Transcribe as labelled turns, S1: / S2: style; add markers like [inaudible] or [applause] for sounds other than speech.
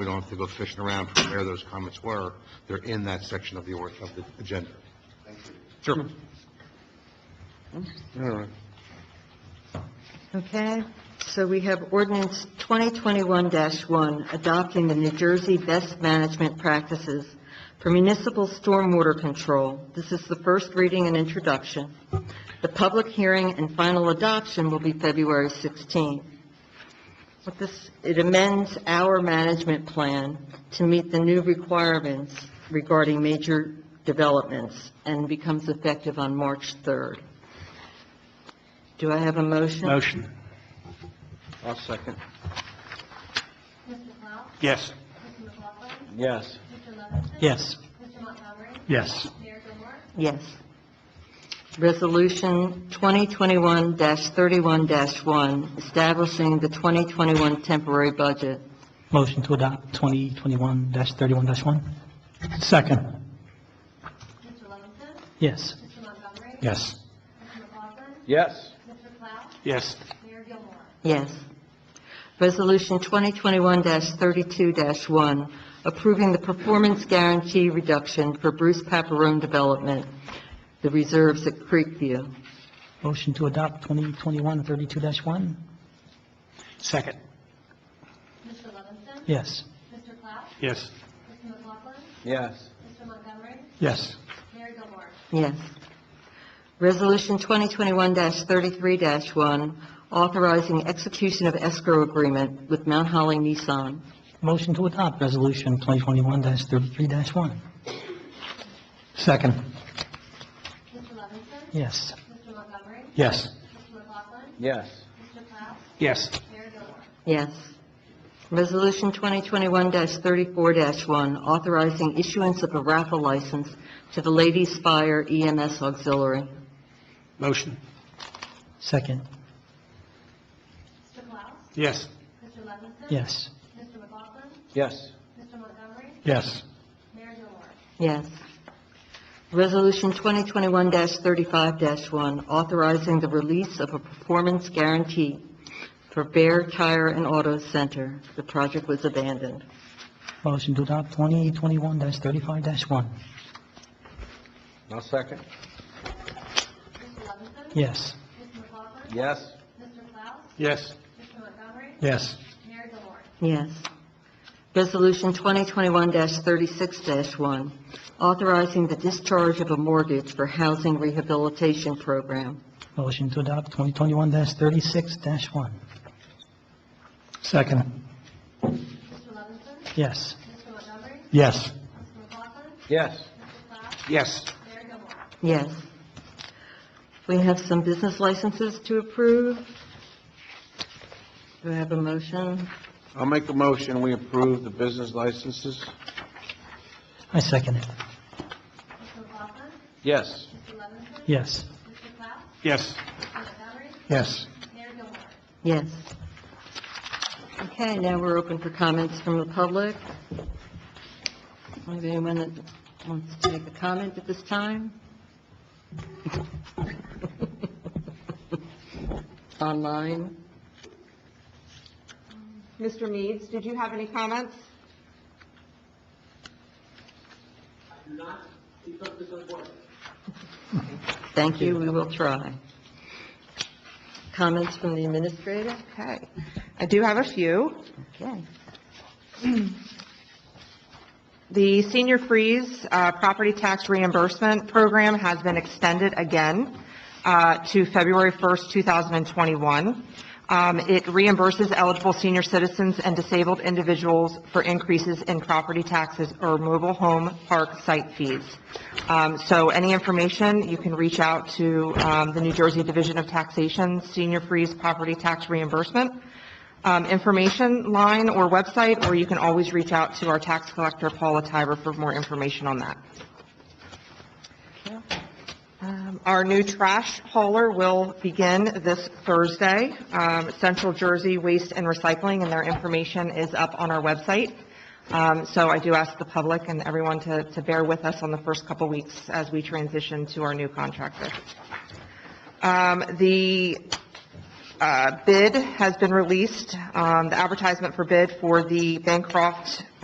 S1: We don't have to go fishing around for where those comments were. They're in that section of the, or- of the agenda. Sure. All right.
S2: Okay, so we have ordinance 2021-1, adopting the New Jersey Best Management Practices for Municipal Stormwater Control. This is the first reading and introduction. The public hearing and final adoption will be February 16th. What this, it amends our management plan to meet the new requirements regarding major developments and becomes effective on March 3rd. Do I have a motion?
S3: Motion?
S1: I'll second.
S4: Mr. Powell?
S3: Yes.
S4: Mr. McLaughlin?
S1: Yes.
S4: Mr. Levinson?
S3: Yes.
S4: Mr. Montgomery?
S3: Yes.
S4: Mayor Gilmore?
S2: Yes. Resolution 2021-31-1, establishing the 2021 temporary budget.
S5: Motion to adopt 2021-31-1.
S3: Second?
S4: Mr. Levinson?
S5: Yes.
S4: Mr. Montgomery?
S3: Yes.
S4: Mr. McLaughlin?
S1: Yes.
S4: Mr. Powell?
S3: Yes.
S4: Mayor Gilmore?
S2: Yes. Resolution 2021-32-1, approving the performance guarantee reduction for Bruce Paparone Development, the reserves at Creekview.
S5: Motion to adopt 2021-32-1.
S3: Second?
S4: Mr. Levinson?
S5: Yes.
S4: Mr. Powell?
S3: Yes.
S4: Mr. McLaughlin?
S1: Yes.
S4: Mr. Montgomery?
S3: Yes.
S4: Mayor Gilmore?
S2: Yes. Resolution 2021-33-1, authorizing execution of escrow agreement with Mount Holly Nissan.
S5: Motion to adopt Resolution 2021-33-1.
S3: Second?
S4: Mr. Levinson?
S5: Yes.
S4: Mr. Montgomery?
S3: Yes.
S4: Mr. McLaughlin?
S1: Yes.
S4: Mr. Powell?
S3: Yes.
S4: Mayor Gilmore?
S2: Yes. Resolution 2021-34-1, authorizing issuance of a raffle license to the Ladies Fire EMS Auxiliary.
S3: Motion?
S5: Second.
S4: Mr. Powell?
S3: Yes.
S4: Mr. Levinson?
S5: Yes.
S4: Mr. McLaughlin?
S1: Yes.
S4: Mr. Montgomery?
S3: Yes.
S4: Mayor Gilmore?
S2: Yes. Resolution 2021-35-1, authorizing the release of a performance guarantee for Bear Tire and Auto Center. The project was abandoned.
S5: Motion to adopt 2021-35-1.
S1: I'll second.
S4: Mr. Levinson?
S5: Yes.
S4: Mr. McLaughlin?
S1: Yes.
S4: Mr. Powell?
S3: Yes.
S4: Mr. Montgomery?
S3: Yes.
S4: Mayor Gilmore?
S2: Yes. Resolution 2021-36-1, authorizing the discharge of a mortgage for housing rehabilitation program.
S5: Motion to adopt 2021-36-1.
S3: Second?
S4: Mr. Levinson?
S5: Yes.
S4: Mr. Montgomery?
S3: Yes.
S4: Mr. McLaughlin?
S1: Yes.
S4: Mr. Powell?
S3: Yes.
S4: Mayor Gilmore?
S2: Yes. We have some business licenses to approve. Do I have a motion?
S1: I'll make a motion, we approve the business licenses.
S5: I second it.
S4: Mr. McLaughlin?
S1: Yes.
S4: Mr. Levinson?
S5: Yes.
S4: Mr. Powell?
S3: Yes.
S4: Mr. Montgomery?
S3: Yes.
S4: Mayor Gilmore?
S2: Yes. Okay, now we're open for comments from the public. Is there anyone that wants to make a comment at this time? [laughs] Online?
S6: Mr. Meads, did you have any comments?
S2: Thank you, we will try. Comments from the administrator?
S6: Okay. I do have a few.
S2: Okay.
S6: The Senior Freeze uh, Property Tax Reimbursement Program has been extended again uh, to February 1st, 2021. Um, It reimburses eligible senior citizens and disabled individuals for increases in property taxes or mobile home park site fees. Um, So any information, you can reach out to um, the New Jersey Division of Taxation Senior Freeze Property Tax Reimbursement um, information line or website, or you can always reach out to our tax collector, Paula Tiber, for more information on that. Um, Our new trash hauler will begin this Thursday, um, Central Jersey Waste and Recycling, and their information is up on our website. Um, So I do ask the public and everyone to to bear with us on the first couple weeks as we transition to our new contractor. Um, The uh, bid has been released, um, the advertisement for bid for the Bancroft